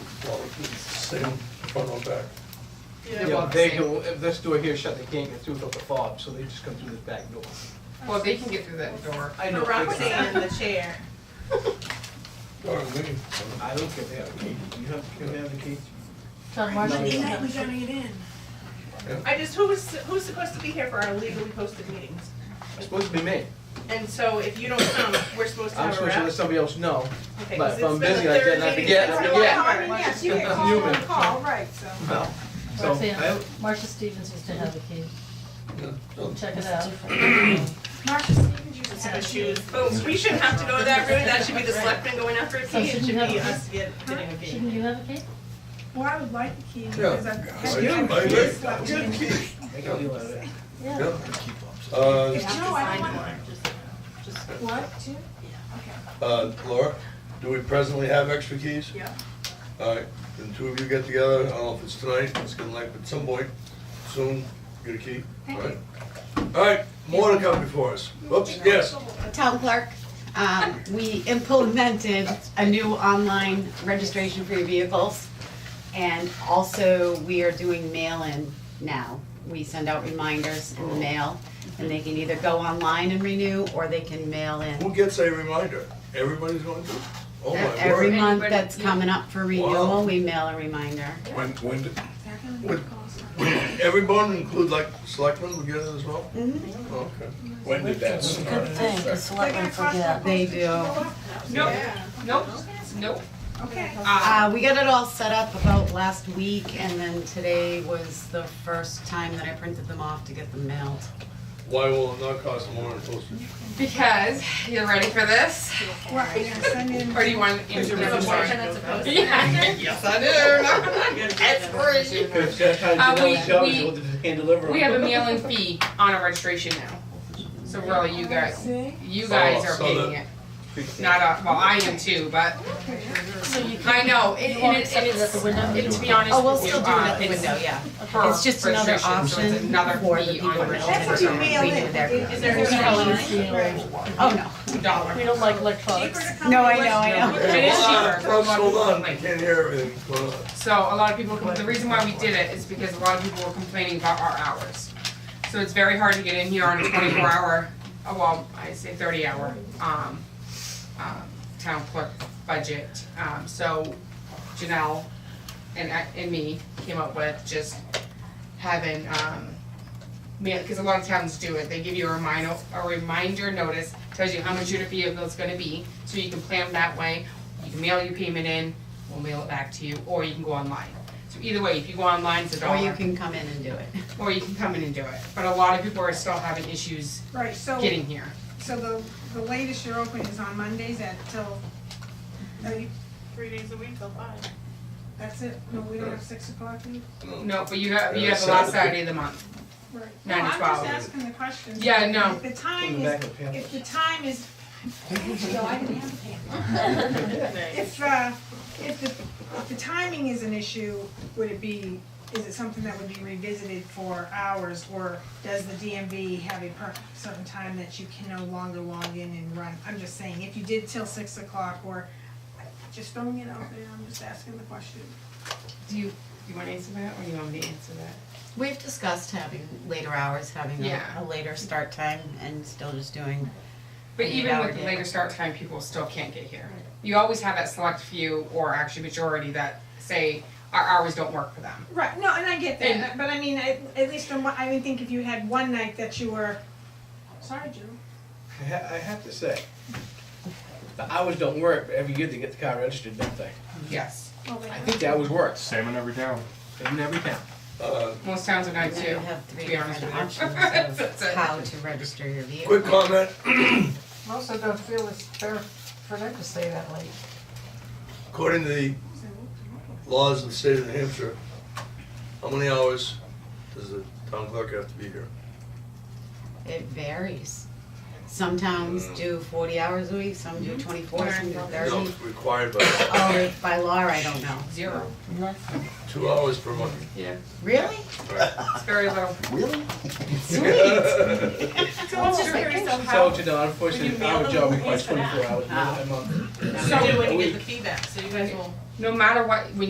forward, it's the same front or back. Yeah, well, they can, if this door here is shut, they can't get through without the fob, so they just come through this back door. Well, they can get through that door. I know. For they can- Roxanne, the chair. Darn me. I don't care if they have a key, you have, can they have the key? John, why don't you we gotta get in. I just, who was, who's supposed to be here for our legally posted meetings? It's supposed to be me, And so if you don't come, we're supposed to I'm have a supposed to rep. let somebody else know, Okay, but 'cause if I'm it's been busy the like that, third and I meeting forget, since I our forget. last I mean, one. yes, you get called on Human. call, right, so. well, so, I, Roxanne, Marcia Stevens used to have the key, Yeah, so- check it out. Marcia Stevens, you have a shoes. Boom, we shouldn't have to go that route, that should be the selectmen going after a key, So it should should you be have a- us get- getting a key. Shouldn't you have a key? Well, I would like the key because I've. Yeah. I've- Yeah, I Yes, like- I've- Good key. make a deal out of it. Yeah. Uh, No, I don't want, what, two? uh, Laura, do we presently have extra keys? Yeah. All right, then two of you get together, I don't know if it's tonight, it's gonna like, at some point, soon, get a key, all right? All right, more to come before us. Oops, yes. town clerk, um, we implemented a new online registration for your vehicles. And also, we are doing mail-in now. We send out reminders in the mail, and they can either go online and renew, or they can mail in. Who gets a reminder? Everybody's going to? Oh, my Every word. month that's coming up for Wow. renewal, we mail a reminder. When, when, did- when, everyone include like selectmen would get it as well? Mm-hmm. Okay. When did that start? Good thing, because selectmen forget. They do. Nope, nope, nope. Okay. Ah, Uh, we got it all set up about last week, and then today was the first time that I printed them off to get them mailed. Why will it not cost more in postage? because, you're ready for this, Well, I'm gonna send in. or do you want to answer You have this a one? motion that's opposed to that? Yeah, yes, I do. That's crazy. Cause that's how Uh, you we- know, show we- you what they can deliver. We have a mailing fee on our registration now. So really, you guys, See? you guys Oh, are so paying it. Not, uh, well, I am too, but So you can, I know, and, You want and it's, and accepted at the it's, window? and to be honest Oh, we'll with you, still do it uh, at the it's window, yeah. per It's just another registration, so it's option another for the fee people on that the don't That's what registration. you We mail do in. their- Is there we a don't sign? use the, uh, Oh, no. Dollar. we don't like electronics. No, Oh, I know, I know. It is Hold on, cheaper. folks, hold on, I can't hear everything, hold on. So a lot of people, com- the reason why we did it is because a lot of people were complaining about our hours. So it's very hard to get in here on a twenty-four hour, oh, well, I say thirty hour, um, um, town clerk budget. Um, so Janelle and I, and me came up with just having, um, man, cause a lot of towns do it, they give you a reminder, a reminder notice, tells you how much your vehicle's gonna be, so you can plan that way. You can mail your payment in, we'll mail it back to you, or you can go online. So either way, if you go online, it's a Or you dollar, can come in and do it. or you can come in and do it, but a lot of people are still having issues Right, so, getting here. so the, the latest you're open is on Mondays at till, are you- Three days a week till five. that's it? No, we don't have six o'clock? in- No, but you have, you have the Yeah, Saturday. last Saturday of the month, Right. Nine to No, I'm twelve. just asking the question. Yeah, no. If the In time the back is, of the pamphlet. if the time is, No, I didn't have a if, uh, if the, if the timing is an issue, would it be, is it something that would be revisited for hours? Or does the DMV have a per, certain time that you can no longer log in and run? I'm just saying, if you did till six o'clock or, just throwing it out there, I'm just asking the question. do you, you wanna answer that, or you want me to answer that? We've discussed having later hours, having a, Yeah. a later start time and still just doing, But Eight even hour with the day. later start time, people still can't get here. You always have that select few or actually majority that say our hours don't work for them. Right, no, and I get And- that, but I mean, at, at least from what, I would think if you had one night that you were, sorry, Joe. I ha- I have to say, the hours don't work, but every year they get the car registered, don't they? Yes, Well, they I have- think the hours work, Same in every town. in every town. Uh, most towns are nine and you too. have three to be honest different with you. options That's of it. how to register your vehicle. Quick comment, Also don't feel it's fair for them to stay that late. according to the laws of the state of New Hampshire, how many hours does the town clerk have to be here? It varies. Some towns do forty hours a week, some Mm-hmm. do twenty-four, some do Mm. No, thirty. it's required by Oh, if by law, I don't know. Zero, two hours per month. yeah, Really? it's very low. So it's just curious of So, how, you know, When unfortunately, you mail our them, job who requires pays for that? twenty-four hours a month. so when you get the feedback, so you guys will. No matter what, when